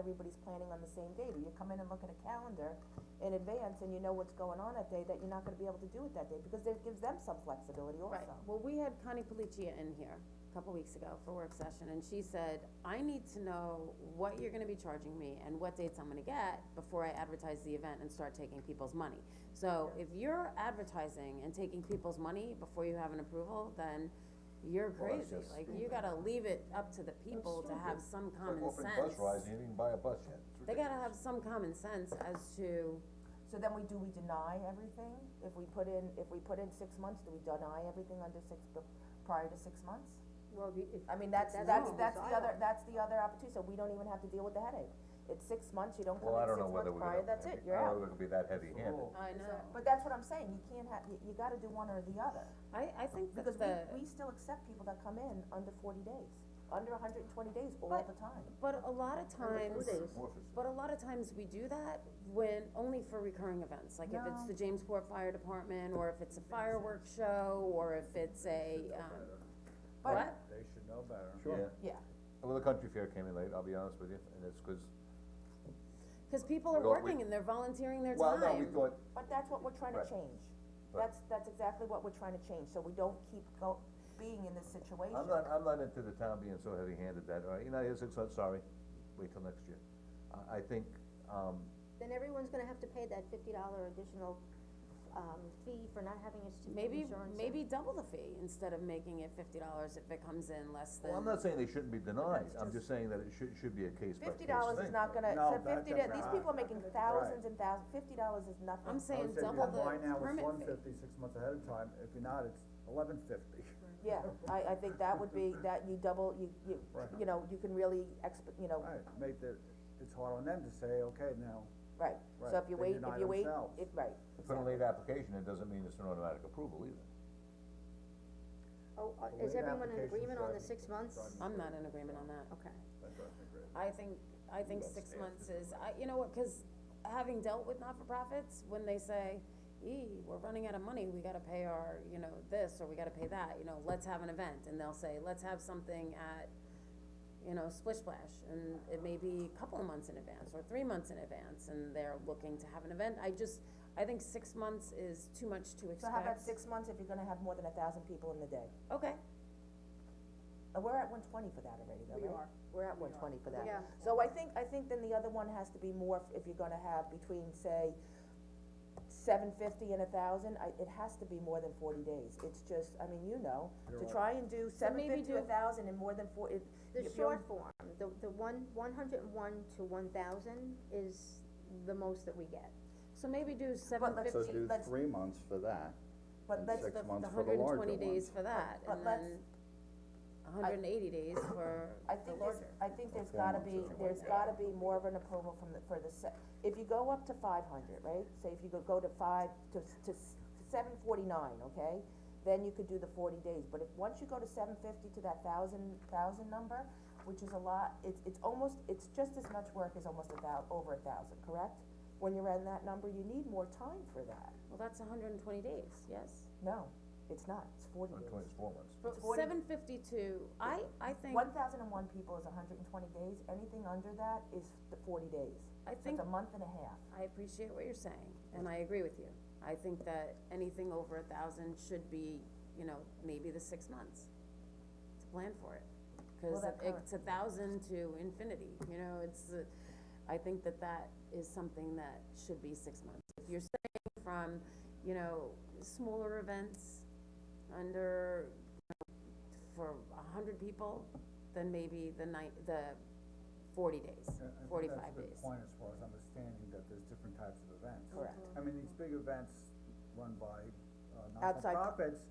everybody's planning on the same day, but you come in and look at a calendar in advance and you know what's going on that day, that you're not gonna be able to do it that day, because it gives them some flexibility also. Right, well, we had Connie Policia in here a couple weeks ago for work session, and she said, I need to know what you're gonna be charging me and what dates I'm gonna get before I advertise the event and start taking people's money. So if you're advertising and taking people's money before you have an approval, then you're Well, that's crazy, just like, you gotta leave it up to the people to have some common sense. Open bus rides, you didn't even buy a bus yet. They gotta have some common sense as to, So then we, do we deny everything? If we put in, if we put in six months, do we deny everything under six, bef- prior to six months? Well, the- if. I mean, that's, if that's, what that's was the other, that's the other opportunity, so we don't even have to deal with the headache. It's six months, you don't come Well, I in don't six know whether months we're prior, gonna, that's I it, don't you're out. know whether we're gonna be that heavy-handed. I know, But that's what I'm saying, you can't have, you, you gotta do one or the other, I, I think that the. because we, we still accept people that come in under forty days, under hundred and twenty days all But- the time. But a lot of times, days. but a lot of times we do that when, only for recurring events, like if it's No. the Jamesport Fire Department, or if it's a fireworks show, or if it's a, um, But- what? They should know better. Sure. Yeah, Well, the country fair came in late, I'll be honest with you, and it's 'cause, Cause people are Well, we- working and they're volunteering their time. well, no, we thought, but that's what we're trying to Right. change, Right. that's, that's exactly what we're trying to change, so we don't keep go, being in this situation. I'm not, I'm not into the town being so heavy-handed that, uh, all right, you're not here six months, sorry, wait till next year. I, I think, um, Then everyone's gonna have to pay that fifty dollar additional, um, fee for not having a stupid Maybe, insurance. maybe double the fee, instead of making it fifty dollars if it comes in less than. well, I'm not saying they shouldn't be denied, I'm just saying that it should, should be a case-by-case Fifty thing. dollars is not gonna, No, so that fifty, da- doesn't these matter. people are making thousands and thousands, fifty dollars is nothing. I'm I saying would say if double you the buy now, it's permit one fee. fifty, six months ahead of time, if you're not, it's eleven fifty. Yeah, I, I think that would be, that you double, you, you, Right. you know, you can really exp, you know, Right, make the, it's hard on them to say, okay, now, right, so if Right, you they wait, deny if you wait, themselves. it, right, If Put a late application, it doesn't mean it's an automatic approval either. Oh, uh, Well, is we have everyone in applications agreement on the driving- six months? driving. I'm not in agreement on that. Okay. that doesn't agree. I think, I think six months is, I, you know what, cause having dealt with not-for-profits, when they say, ee, we're running out of money, we gotta pay our, you know, this, or we gotta pay that, you know, let's have an event, and they'll say, let's have something at, you know, Splish Splash, and it may be a couple of months in advance, or three months in advance, and they're looking to have an event, I just, I think six months is too much to expect. so how about six months if you're gonna have more than a thousand people in the day? Okay, Uh, we're at one twenty for that already, though, We right? are. We're at one twenty for that. Yeah. So I think, I think then the other one has to be more, if- if you're gonna have between, say, seven fifty and a thousand, I, it has to be more than forty days, it's just, I mean, you know, to try and do seven maybe fifty to a do- thousand and more than four, it, The if you're- short form, the, the one, one hundred and one to one thousand is the most that we get. so maybe do seven let's- So fifty, do let's- three months for that, but and let's, six the, months the for the hundred and larger twenty days ones. for that, But and let's- then hundred and eighty days for I the think there's, larger. I think there's Four gotta months be, is what there's we gotta be more of an approval from the, for the se- if you go up to five hundred, right? Say if you go, go to five, to, to seven forty-nine, okay? Then you could do the forty days, but if, once you go to seven fifty to that thousand, thousand number, which is a lot, it's, it's almost, it's just as much work as almost a thou, over a thousand, correct? When you're in that number, you need more time for that. Well, that's hundred and twenty days, yes. No, it's not, it's forty Or days. Twenty-four months. But Forty- seven fifty-two, I, I think, One thousand and one people is hundred and twenty days, anything under that is the forty days. I So think, it's a month and a half. I appreciate what you're saying, and I agree with you. I think that anything over a thousand should be, you know, maybe the six months to plan for it. Cause Well, that it- it's a thousand to infinity, you know, it's, uh, I think that that is something that should be six months. If you're saying from, you know, smaller events under, you know, for a hundred people, then maybe the night, the forty days, I- I think forty-five That's a days. good point as far as understanding that there's different types of events. Correct. I mean, these big events run by, uh, Outside- not-for-profits,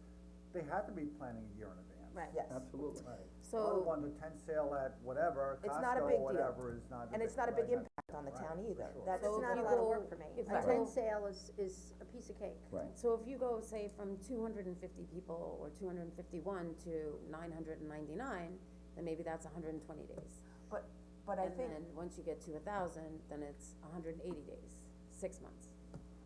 they have to be planning a year in advance. Right. Yes. Absolutely. Right. So- Other one, the tent sale at whatever, It's not a Costco, big deal. whatever, is not a big, And it's not a big right, not- impact on the Right, town for either, sure. that's, So It's if not a you lot of go- work for me. if A you tent go- sale is, is a piece of cake. Right. So if you go, say, from two hundred and fifty people or two hundred and fifty-one to nine hundred and ninety-nine, then maybe that's hundred and twenty days. but, but I think, And then, once you get to a thousand, then it's hundred and eighty days, six months.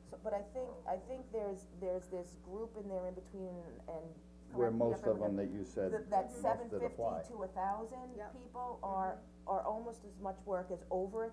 so- but I think, I think there's, there's this group in there in between and. Where correct me if most I'm of them looking- that you said, th- That most seven that fifty apply. to a thousand Yep. people are, are almost as much work as over a